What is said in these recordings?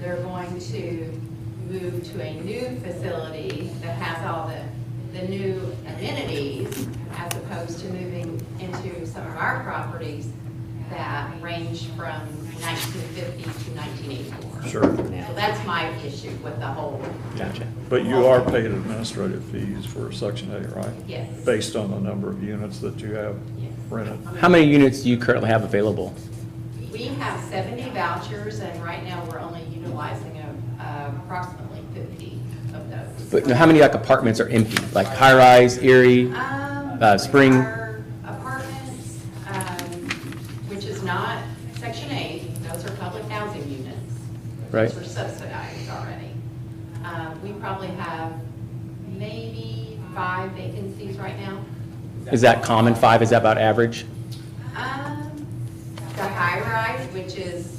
they're going to move to a new facility that has all the, the new amenities as opposed to moving into some of our properties that range from nineteen fifty to nineteen eighty-four. Sure, So that's my issue with the whole, Gotcha. but you are paid administrative fees for section eight, right? yes. Based on the number of units that you have rented. How many units do you currently have available? We have seventy vouchers, and right now, we're only utilizing uh, approximately fifty of those. But how many like apartments are empty, like high-rise, Erie? Um, Uh, spring- our Apartments, um, which is not Section 8, those are public housing units. Right. Those are subsidized already. Um, We probably have maybe five vacancies right now. Is that common, five, is that about average? Um, The high rise, which is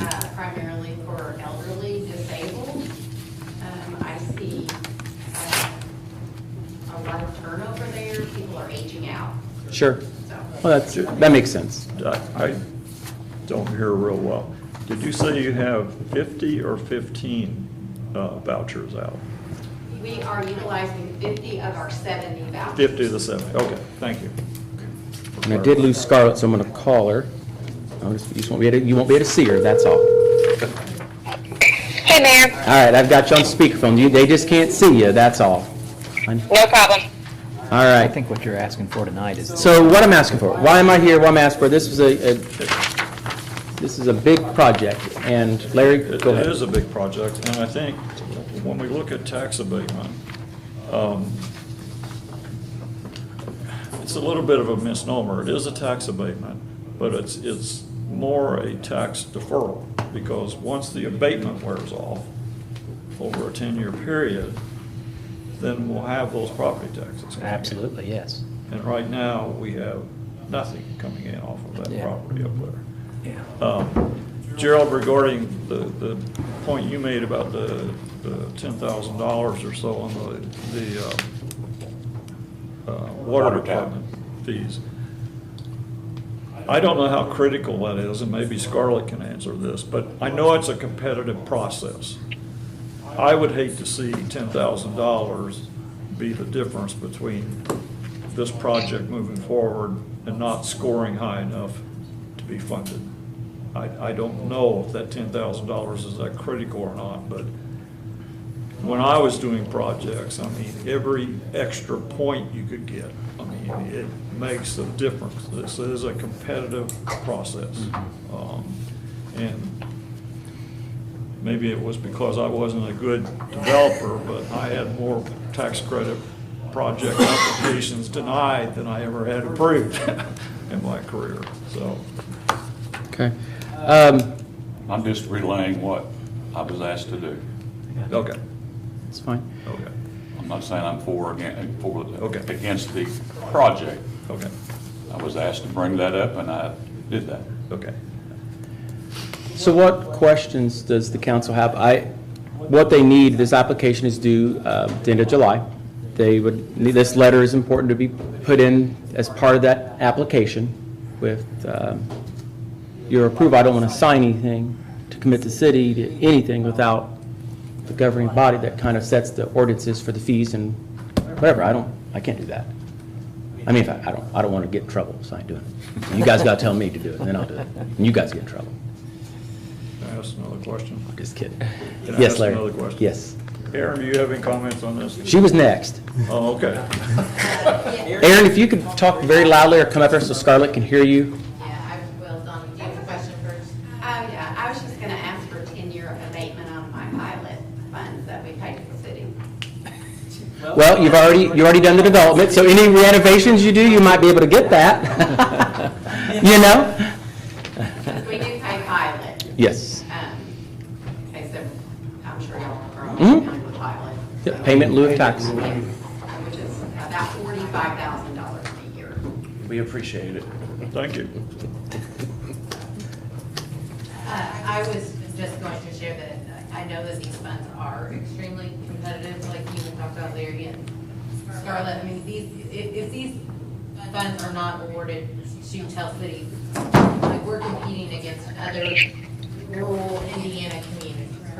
uh, primarily for elderly disabled, um, I see uh, a lot of turnover there, people are aging out, Sure. so. Well, that's, that makes sense. I I don't hear real well. Did you say you have 50 or 15 uh, vouchers out? We are utilizing 50 of our 70 vouchers. 50 to 70, okay, thank you. And I did lose Scarlett, so I'm gonna call her. I'll just- You just won't be able to, you won't be able to see her, that's all. Hey, Mayor. All right, I've got you on speakerphone, you, they just can't see you, that's all. No problem. All I right, think what you're asking for tonight is so what I'm asking for, why am I here, why am I asking for, this is a, a- this is a big project, and Larry, It go it ahead. is a big project, and I think when we look at tax abatement, um, it's a little bit of a misnomer. It is a tax abatement, but it's, it's more a tax deferral, because once the abatement wears off over a 10-year period, then we'll have those property taxes. coming in. absolutely, yes. And right now, we have nothing coming in off of that Yeah. property up there. Yeah. Um, Gerald, regarding the, the point you made about the, the ten thousand dollars or so on the, the, uh, uh, water Water tap. department fees. I don't know how critical that is, and maybe Scarlett can answer this, but I know it's a competitive process. I would hate to see ten thousand dollars be the difference between this project moving forward and not scoring high enough to be funded. I, I don't know if that ten thousand dollars is that critical or not, but when I was doing projects, I mean, every extra point you could get, I mean, it makes a difference. This is a competitive process. Um, And maybe it was because I wasn't a good developer, but I had more tax credit project applications denied than I ever had approved in my career, so. Okay. Um, I'm just relaying what I was asked to do. Okay, It's fine. okay, I'm not saying I'm for, or against, for, the- Okay. against the project. okay, I was asked to bring that up, and I did that. okay. So what questions does the council have? I, what they need, this application is due uh, the end of July. They would, need- this letter is important to be put in as part of that application with um, your approval. I don't want to sign anything to commit the city to anything without the governing body that kind of sets the ordinances for the fees and whatever. I don't, I can't do that. I mean, if I I don't, I don't want to get in trouble, so I ain't doing it. You guys got to tell me to do it, and then I'll do it. And you guys get in trouble. Can I ask another question? Just kidding. Can I Yes, ask Larry. another question? Yes. Aaron, do you have any comments on this? She was next. Oh, okay. Aaron, if you could talk very loudly or come up here so Scarlett can hear you. Yeah, I will, Donna, do you have a question first? Oh, yeah, I was just going to ask for 10-year abatement on my pilot funds that we paid to the city. Well, you've already, you've already done the development, so any renovations you do, you might be able to get that. You know? We do pay pilot. Yes. um, Okay, so I'm sure y'all are all Mhm. familiar with pilot. Yeah, Payment in lieu of tax. Yeah, Which is about $45,000 a year. We appreciate it. Thank you. Uh, I was just going to share that I know that these funds are extremely competitive, like you had talked about Larry and Scarlett. I mean, these, if, if these funds are not awarded to Tell City, like, we're competing against other rural Indiana